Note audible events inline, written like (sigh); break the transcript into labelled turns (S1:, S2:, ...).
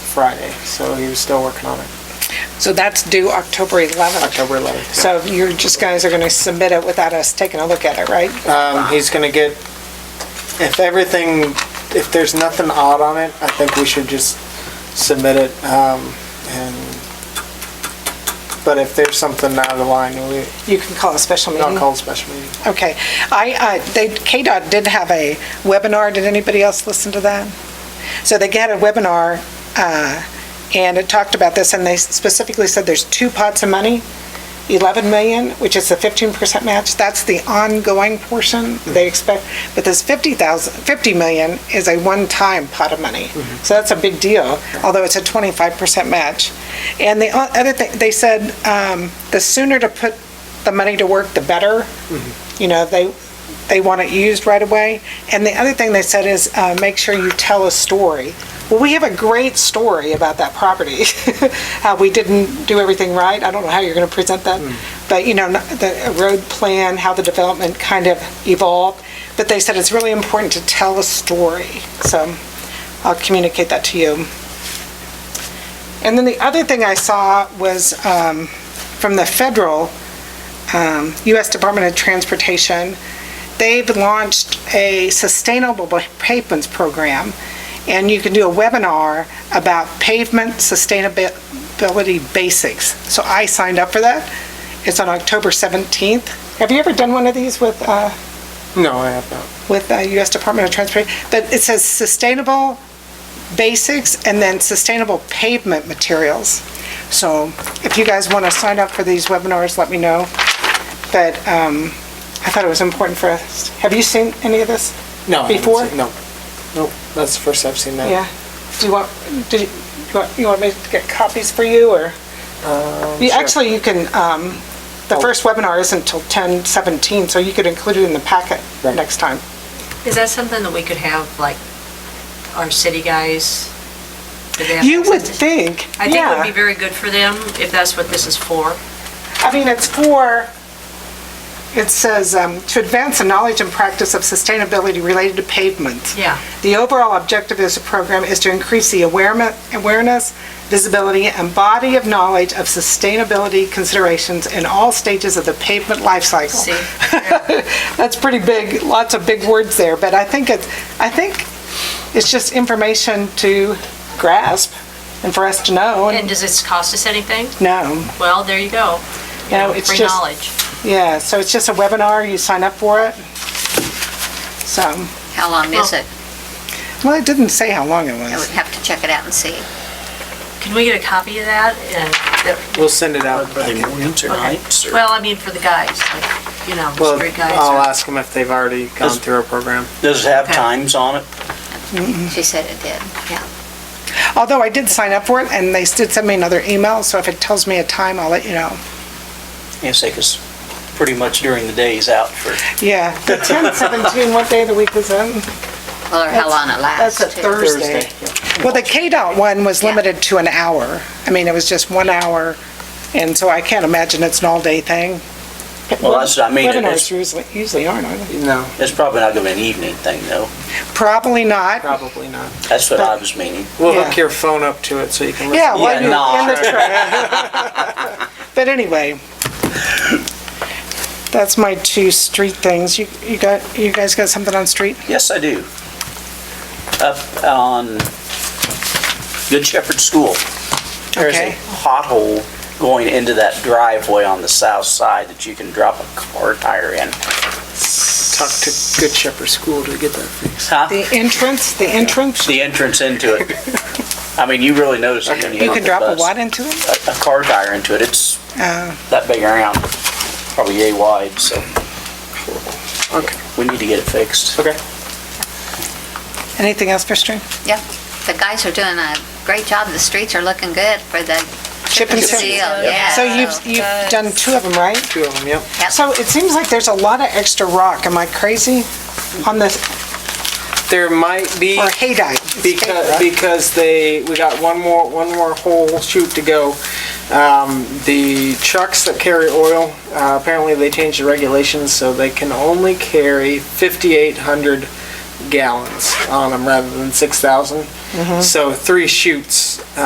S1: Friday, so he was still working on it,
S2: So that's due October 11th.
S1: October 11th.
S2: So you're, just guys are going to submit it without us taking a look at it, right?
S1: Um, he's gonna get, if everything, if there's nothing odd on it, I think we should just submit it, um, and, but if there's something out of line, we,
S2: You can call a special
S1: I'll
S2: meeting.
S1: call a special meeting.
S2: Okay. I, uh, they, KDOT did have a webinar. Did anybody else listen to that? So they had a webinar, uh, and it talked about this, and they specifically said there's two pots of money, 11 million, which is the 15% match. That's the ongoing portion they expect. But this 50,000, 50 million is a one-time pot of money. So that's a big deal, although it's a 25% match. And the o- other thing, they said, um, the sooner to put the money to work, the better. You know, they, they want it used right away. And the other thing they said is, uh, make sure you tell a story. Well, we have a great story about that property, (laughs) how we didn't do everything right. I don't know how you're going to present that, but you know, not- the road plan, how the development kind of evolved. But they said it's really important to tell a story. So I'll communicate that to you. And then the other thing I saw was um, from the federal, um, U.S. Department of Transportation, they've launched a sustainable pavements program, and you can do a webinar about pavement sustainability basics. So I signed up for that. It's on October 17th. Have you ever done one of these with, uh,
S1: No, I have not.
S2: with the U.S. Department of Transportation? But it says sustainable basics and then sustainable pavement materials. So if you guys want to sign up for these webinars, let me know. But um, I thought it was important for us. Have you seen any of this?
S1: No. I haven't
S2: Before?
S1: seen- No, nope, that's the first I've seen that.
S2: Yeah. Do you want, did you, you want- you want me to get copies for you, or? You-
S1: sure. Oh.
S2: Actually, you can, um, the first webinar isn't till 10:17, so you could include it in the packet
S1: Right.
S2: next time.
S3: Is that something that we could have, like, our city guys? do they have
S2: You would
S3: access to-
S2: think,
S3: I think it would be
S2: yeah.
S3: very good for them, if that's what this is for.
S2: I mean, it's for, it says, um, "To advance the knowledge and practice of sustainability related to pavements."
S3: Yeah.
S2: The overall objective of this program is to increase the awareme- awareness, visibility, and body of knowledge of sustainability considerations in all stages of the pavement life cycle.
S3: See?
S2: (laughs) That's pretty big, lots of big words there, but I think it's, I think it's just information to grasp and for us to know,
S3: And
S2: and
S3: does this cost us anything?
S2: know.
S3: Well, there you go. You
S2: No,
S3: know,
S2: it's
S3: Free
S2: just-
S3: knowledge.
S2: Yeah, so it's just a webinar, you sign up for it. So,
S4: How long is
S2: Oh.
S3: Well-
S4: it?
S2: well, it didn't say how long it
S4: I would
S2: was.
S4: have to check it out and see.
S3: Can we get a copy of that? And that-
S1: We'll send it out. but I can-
S3: okay. Well, I mean, for the guys, like, you know, the
S1: Well,
S3: street guys.
S1: I'll
S3: or-
S1: ask them if they've already gone through our program.
S5: Does it have
S3: Okay.
S5: times on it?
S4: She said it did, yeah.
S2: Although I did sign up for it, and they did send me another email, so if it tells me a time, I'll let you know.
S5: Yes, they could s- pretty much during the days out for,
S2: Yeah,
S5: (laughs)
S2: the 10, 17, what day of the week was that?
S4: Well, Or how long it lasts.
S2: That's a
S4: too.
S2: Thursday. Well, the KDOT one was
S4: Yeah.
S2: limited to an hour. I mean, it was just one hour, and so I can't imagine it's an all-day thing.
S5: Well, that's what I mean,
S2: Webinars
S5: it's-
S2: usually, usually aren't, are they?
S1: No,
S5: it's probably not gonna be an evening thing though.
S2: Probably not.
S1: probably not.
S5: That's what I was meaning.
S1: We'll hook
S2: Yeah.
S1: your phone up to it so you can listen.
S2: Yeah,
S5: Yeah,
S2: while
S5: nah.
S2: you're in the truck.
S5: (laughs)
S2: But anyway, that's my two street things. You, you got, you guys got something on street?
S5: Yes, I do. Up on Good Shepherd School, there's a
S2: Okay.
S5: pothole going into that driveway on the south side that you can drop a car tire in.
S1: Talk to Good Shepherd School to get that fixed.
S5: Huh?
S2: The entrance, the entrance?
S5: The entrance
S2: (laughs)
S5: into it. I mean, you really notice it when you
S2: You
S5: hit
S2: can
S5: the
S2: drop a
S5: bus.
S2: what into it?
S5: a- a car tire into it. It's
S2: Oh.
S5: that big around, probably yay wide, so
S1: Okay,
S5: we need to get it fixed.
S1: okay.
S2: Anything else for street?
S4: Yeah, the guys are doing a great job, the streets are looking good for the
S2: Chip and seal.
S4: yeah.
S2: So you've, you've done two of them, right?
S1: Two of them, yep.
S4: Yep.
S2: So it seems like there's a lot of extra rock. Am I crazy? On this,
S1: There might be,
S2: or haydite?
S1: because, because they, we got one more, one more whole shoot to go. Um, the trucks that carry oil, uh, apparently they changed the regulations, so they can only carry fifty-eight hundred gallons on them rather than six thousand. So three shoots,